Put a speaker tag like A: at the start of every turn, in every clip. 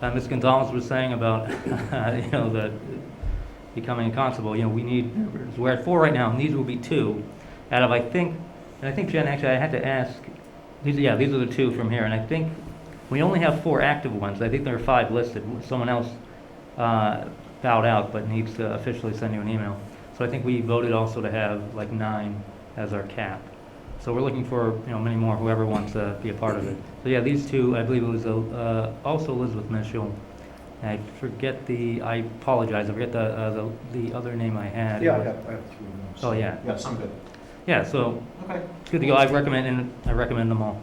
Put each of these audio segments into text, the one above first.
A: uh, Ms. Gonzalez was saying about, you know, the becoming a constable, you know, we need, members. we're at four right now, and these will be two out of, I think, and I think Jen, actually, I had to ask, these, yeah, these are the two from here, and I think we only have four active ones. I think there are five listed. Someone else uh, bowed out but needs to officially send you an email. So I think we voted also to have like nine as our cap. So we're looking for, you know, many more, whoever wants to be a part of it. So yeah, these two, I believe it was uh, also Elizabeth Mitchell. I forget the, I apologize, I forget the, uh, the the other name I had.
B: Yeah, I have, I have three names.
A: Oh, yeah.
B: Yeah, some good.
A: Yeah, so
B: Okay.
A: it's good to go. I recommend, and I recommend them all.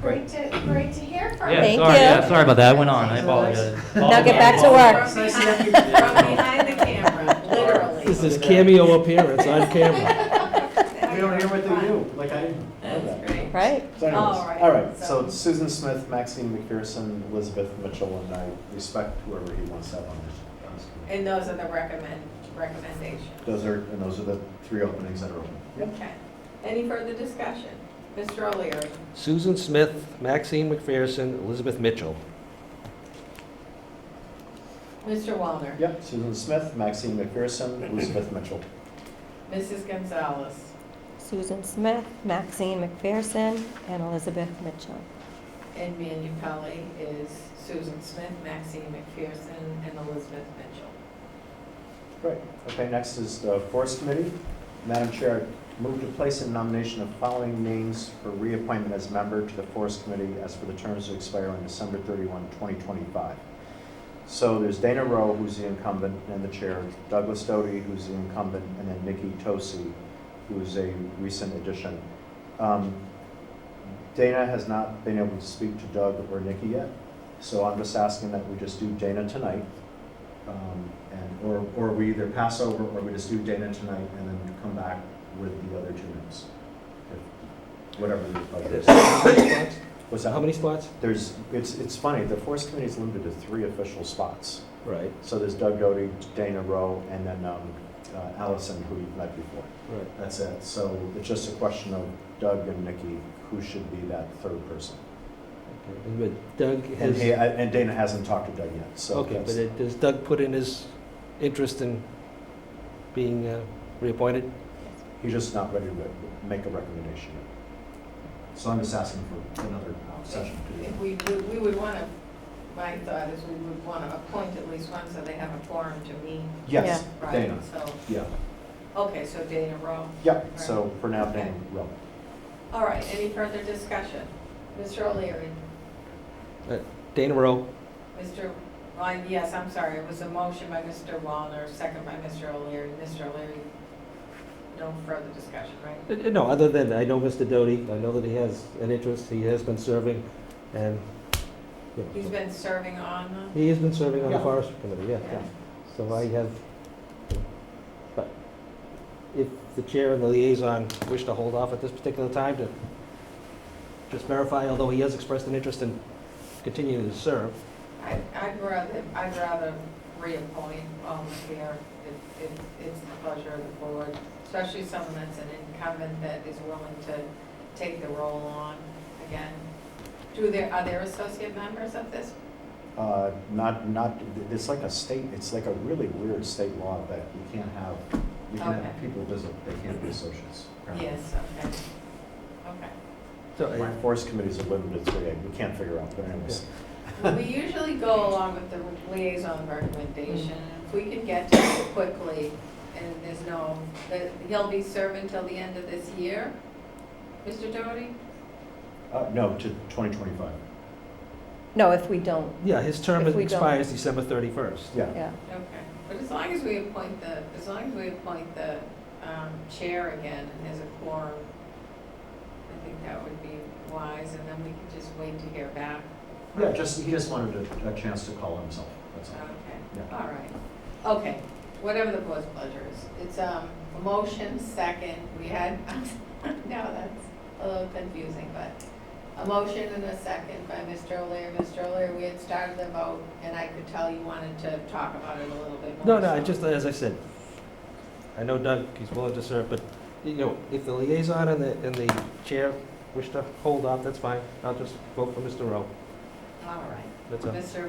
B: Great.
C: Great to, great to hear from you.
A: Yeah,
D: Thank
A: sorry,
D: you.
A: yeah, sorry about that. I went on. I apologize.
D: Now get back to work.
C: From behind from behind the camera, literally.
E: This is cameo appearance on camera.
B: We don't hear what they do, like I didn't.
C: That's great.
D: Right?
B: So
C: All
B: anyways,
C: right,
B: all right,
C: so-
B: so Susan Smith, Maxine McPherson, Elizabeth Mitchell, and I respect whoever he wants to have on this- on this. committee.
C: And those are the recommend, recommendations.
B: Those are, and those are the three openings that are open.
C: Okay. Any further discussion? Mr. O'Leary?
E: Susan Smith, Maxine McPherson, Elizabeth Mitchell.
C: Mr. Wallner?
B: Yep, Susan Smith, Maxine McPherson, Elizabeth Mitchell.
C: Mrs. Gonzalez?
D: Susan Smith, Maxine McPherson, and Elizabeth Mitchell.
C: And Manu Pelley is Susan Smith, Maxine McPherson, and Elizabeth Mitchell.
B: Great. Okay, next is the Forest Committee. Madam Chair, I move to place in nomination of following names for reappointment as member to the Forest Committee as for the terms to expire on December 31, 2025. So there's Dana Rowe, who's the incumbent and the chair, Douglas Doty, who's the incumbent, and then Nikki Tosi, who's a recent addition. Um, Dana has not been able to speak to Doug or Nikki yet, so I'm just asking that we just do Dana tonight. Um, And, or, or we either pass over, or we just do Dana tonight and then come back with the other two names. If- Whatever the budget
E: There's
B: is.
E: How many spots?
B: What's that?
E: How many spots?
B: There's, it's, it's funny, the Forest Committee is limited to three official spots.
E: Right,
B: So there's Doug Doty, Dana Rowe, and then um, uh, Allison, who you've met before.
E: right.
B: That's it. So it's just a question of Doug and Nikki, who should be that third person.
E: okay. But Doug
B: And he, uh,
E: has,
B: and Dana hasn't talked to Doug yet, so.
E: okay, but
B: that's-
E: it- does Doug put in his interest in being uh, reappointed?
B: He's just not ready to make a recommendation yet. So I'm just asking for another uh, session. to do
C: If we, would- we would want to, my thought is we would want to appoint at least one so they have a forum to meet,
B: that. Yes,
C: right?
B: Dana,
C: So,
B: yeah,
C: okay, so Dana Rowe.
B: yeah, so for now, Dana Rowe.
C: All right, any further discussion? Mr. O'Leary?
E: Dana Rowe,
C: Mr. Ryan, yes, I'm sorry, it was a motion by Mr. Wallner, second by Mr. O'Leary. Mr. O'Leary, no further discussion, right?
E: Uh, No, other than, I know Mr. Doty, I know that he has an interest, he has been serving, and, you know,
C: He's been serving on
E: he has been serving on the
B: Yeah.
E: Forest Committee, yeah,
C: the,
E: yeah. So I have, but if the chair and the liaison wish to hold off at this particular time to just verify, although he has expressed an interest in continuing to serve,
C: I- I'd rather, I'd rather reappoint Alma here if, if it's the pleasure of the board, especially someone that's an incumbent that is willing to take the role on again. Do there, are there associate members of this?
B: Uh, Not, not, it's like a state, it's like a really weird state law that you can't have, you can
C: Okay.
B: have people visit, they can't be associates. apparently.
C: Yes, okay. Okay.
E: so
B: My
E: I-
B: forest committees are limited to three, we can't figure out, but anyways.
C: Well, We usually go along with the liaison recommendation. If we can get to it quickly, and there's no, that he'll be serving till the end of this year, Mr. Doherty?
B: Uh, No, to 2025,
D: No, if we don't,
E: yeah, his term
D: If we don't-
E: expires December 31st.
B: yeah.
D: yeah.
C: Okay. But as long as we appoint the, as long as we appoint the um, chair again, and there's a quorum, I think that would be wise, and then we can just wait to hear back.
B: Yeah, just, he just wanted a, a chance to call himself, that's all.
C: Okay,
B: Yeah.
C: all right. Okay, whatever the board's pleasure is. It's um, a motion, second, we had, now that's a little confusing, but a motion and a second by Mr. O'Leary. Mr. O'Leary, we had started the vote, and I could tell you wanted to talk about it a little bit more.
E: No, no, I
C: so-
E: just, as I said, I know Doug, he's willing to serve, but, you know, if the liaison and the, and the chair wish to hold off, that's fine. I'll just vote for Mr. Rowe,
C: All right,
E: that's all.
C: Mr.